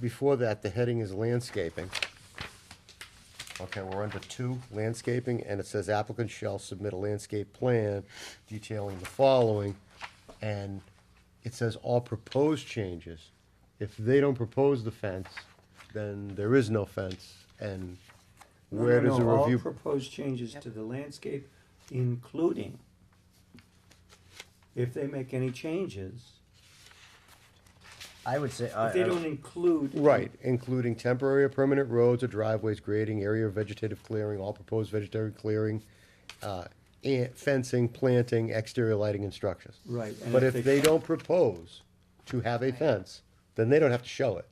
before that, the heading is landscaping. Okay, we're under two, landscaping, and it says applicant shall submit a landscape plan detailing the following. And it says all proposed changes. If they don't propose the fence, then there is no fence, and No, no, where does the no, review? All proposed changes to the landscape, including if they make any changes, I would say, I, if they I- don't include. Right, including temporary or permanent roads or driveways, grading, area of vegetative clearing, all proposed vegetative clearing, uh, and fencing, planting, exterior lighting and structures. Right, and But if if they- they don't propose to have a fence, then they don't have to show it.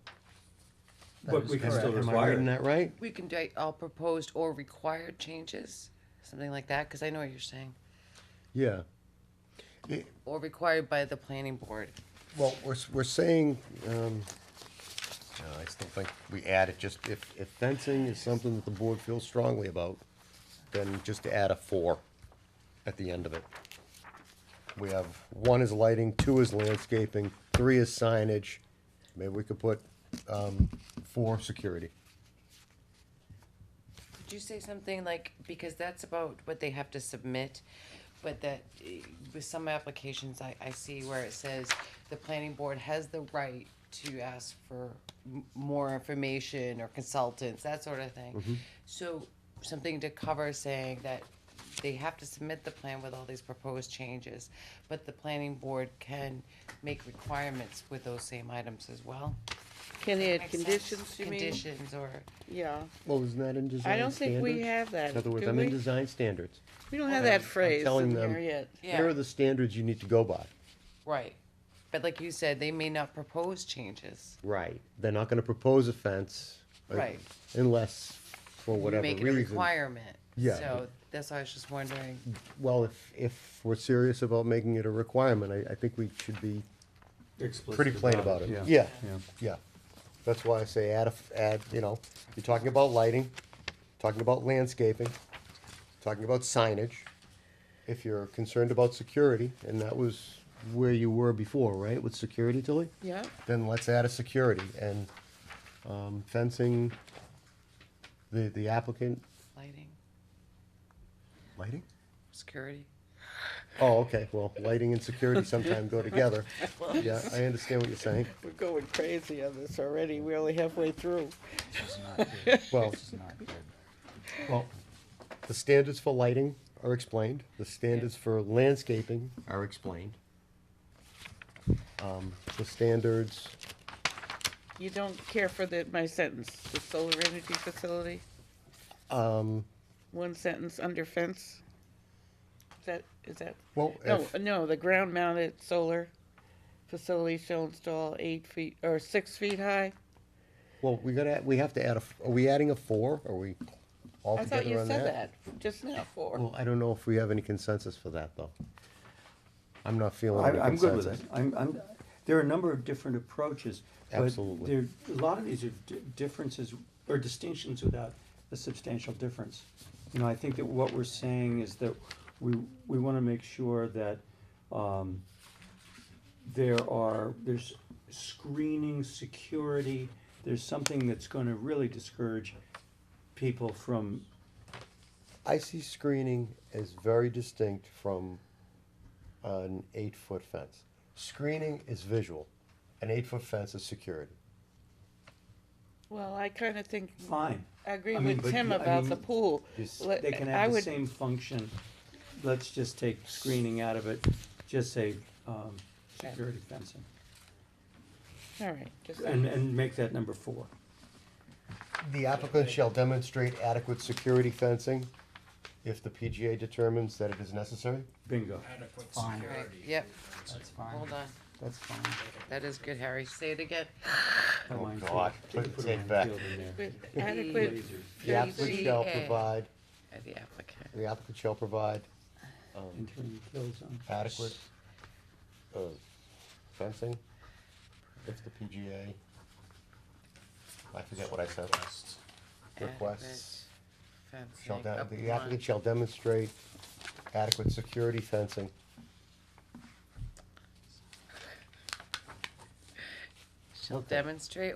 But we can Am I- still Am I require reading it. that right? We can do all proposed or required changes, something like that, because I know what you're saying. Yeah. Or required by the planning board. Well, we're, s- we're saying, um, no, I still think we add it, just if, if fencing is something that the board feels strongly about, then just add a four at the end of it. We have, one is lighting, two is landscaping, three is signage, maybe we could put, um, four, security. Could you say something like, because that's about what they have to submit, but that eh, with some applications, I, I see where it says the planning board has the right to ask for m- more information or consultants, that sort of thing. So something to cover saying that they have to submit the plan with all these proposed changes, but the planning board can make requirements with those same items as well. Can they add Makes sense. conditions, you mean? Conditions or. Yeah, Well, isn't that in design I don't think we standards? have that, In other do words, I'm in we? design standards. We don't have that I'm phrase telling in here them- yet. Yeah. Here are the standards you need to go by. Right. But like you said, they may not propose changes. Right. They're not gonna propose a fence. uh, Right. Unless, for You whatever Make it a reason. requirement. Yeah. So that's why I was just wondering. Well, if, if we're serious about making it a requirement, I, I think we should be pretty plain about it. Yeah, Yeah. yeah. That's why I say add, a f- add, you know, you're talking about lighting, talking about landscaping, talking about signage. If you're concerned about security, and that was where you were before, right, with security, Tilly? Yeah, then let's add a security and um, fencing, the, the applicant, Lighting, lighting? security. Oh, okay, well, lighting and security sometime go together. Yeah, I understand what you're saying. we're going crazy on this already, we're only halfway through. Well, It's not good. well, the standards for lighting are explained, the standards for landscaping are explained. Um, The standards, You don't care for the, my sentence, the solar energy facility, um, one sentence under fence? Is that, is that, well, no, uh, if, no, the ground mounted solar facility shall install eight feet, or six feet high? well, we gotta, we have to add a, f- are we adding a four? Are we all I thought you together on said that just now, four. Well, I don't know if we have any consensus for that, though. I'm not feeling I, any I'm good with consensus. it. I'm, I'm, there are a number of different approaches. but Absolutely. There, a lot of these are di- differences or distinctions without a substantial difference. You know, I think that what we're saying is that we, we wanna make sure that, um, there are, there's screening, security, there's something that's gonna really discourage people from, I see screening as very distinct from an eight-foot fence. Screening is visual. An eight-foot fence is security. Well, I kinda think, fine, I agree I mean, with but Tim you- I about the mean, pool. this- Let- they can I have the would- same function. Let's just take screening out of it, just say, um, security fencing, All right, just, and, and make that number four. The applicant shall demonstrate adequate security fencing if the PGA determines that it is necessary. Bingo. adequate Fine. Right, security. yep, That's fine. hold on. That's fine. That is good, Harry. Say it again. A Oh, minefield. God. You can Put put a it back. minefield in there. with adequate Lasers. The applicant shall PGA. provide, Uh, The applicant. the applicant shall provide um, Entering the kill zone. adequate uh, fencing if the PGA, I forget what I said, requests. Adequate Shall, de- fencing the applicant upon- shall demonstrate adequate security fencing. Shall demonstrate